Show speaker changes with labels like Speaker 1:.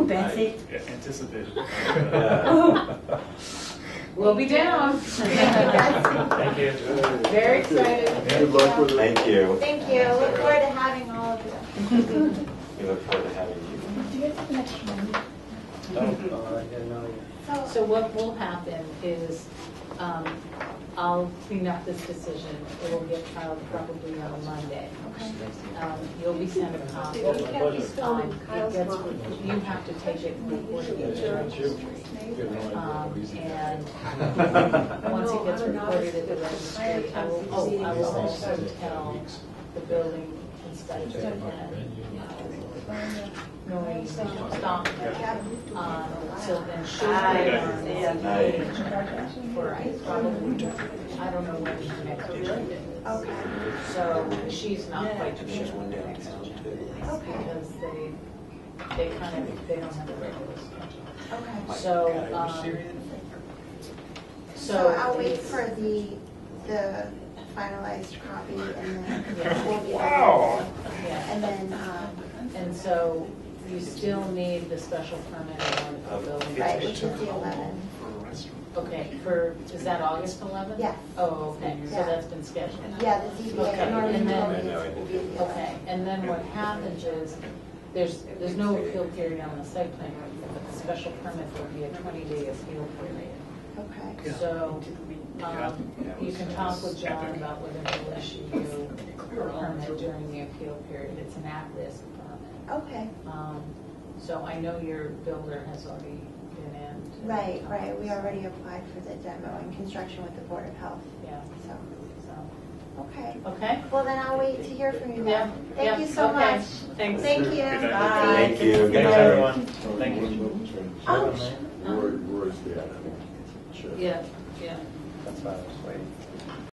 Speaker 1: Anticipate.
Speaker 2: Anticipate.
Speaker 3: We'll be down.
Speaker 2: Thank you.
Speaker 3: Very excited.
Speaker 4: Good luck with it.
Speaker 5: Thank you.
Speaker 6: Um, Thank you, look forward to having all of you.
Speaker 5: We look forward to having you.
Speaker 6: Do you guys have an extra one? Oh,
Speaker 3: So what will happen is, um, I'll clean up this decision. It will get filed probably on Monday.
Speaker 6: okay.
Speaker 3: Um, You'll be sent a copy.
Speaker 7: You can't be
Speaker 3: Um,
Speaker 7: filming
Speaker 3: it
Speaker 7: Kyle's
Speaker 3: gets,
Speaker 7: mom.
Speaker 3: you have to take it and report it. Um, and once it gets recorded at the registry, I will, oh, I will also tell the building inspector that noise stop Um, on Sylvan Shores.
Speaker 5: Night.
Speaker 3: For, I probably, I don't know when the next meeting is.
Speaker 6: Okay,
Speaker 3: So she's not quite sure.
Speaker 5: There's one downtown too.
Speaker 6: okay,
Speaker 3: Because they, they kind of, they don't have the regular schedule.
Speaker 6: okay.
Speaker 3: So, um,
Speaker 6: So I'll wait
Speaker 3: it's-
Speaker 6: for the, the finalized copy and then.
Speaker 2: Wow.
Speaker 3: Yeah,
Speaker 6: And then, um,
Speaker 3: and so you still need the special permit and the building.
Speaker 6: right, which is the 11.
Speaker 2: For a restaurant.
Speaker 3: Okay, for, is that August 11th?
Speaker 6: Yes.
Speaker 3: Oh, okay, so
Speaker 6: Yeah.
Speaker 3: that's been scheduled.
Speaker 6: Yeah, the ZBA,
Speaker 3: Okay,
Speaker 6: normally
Speaker 3: and then-
Speaker 6: it would be the 11.
Speaker 3: Okay, and then what happens is, there's, there's no appeal period on the site plan review, but the special permit would be a 20-day appeal period.
Speaker 6: Okay.
Speaker 3: So, um, you can talk with John about whether he'll issue you a permit during the appeal period. It's an at-risk permit.
Speaker 6: Okay,
Speaker 3: Um, So I know your builder has already been in.
Speaker 6: right, right, we already applied for the demo and construction with the Board of Health,
Speaker 3: Yeah,
Speaker 6: so,
Speaker 3: so,
Speaker 6: okay.
Speaker 3: okay?
Speaker 6: Well, then I'll wait to hear from you
Speaker 3: Yeah,
Speaker 6: then.
Speaker 3: yeah,
Speaker 6: Thank you so
Speaker 3: okay.
Speaker 6: much.
Speaker 3: Thanks.
Speaker 6: Thank
Speaker 2: Good
Speaker 6: you.
Speaker 2: night.
Speaker 6: Bye.
Speaker 5: Thank you. Good night.
Speaker 2: Thanks, everyone.
Speaker 4: Thank you.
Speaker 6: Oh, sh-
Speaker 4: Roy, Roy's the admin. Sure.
Speaker 3: Yeah, yeah.
Speaker 5: That's about it.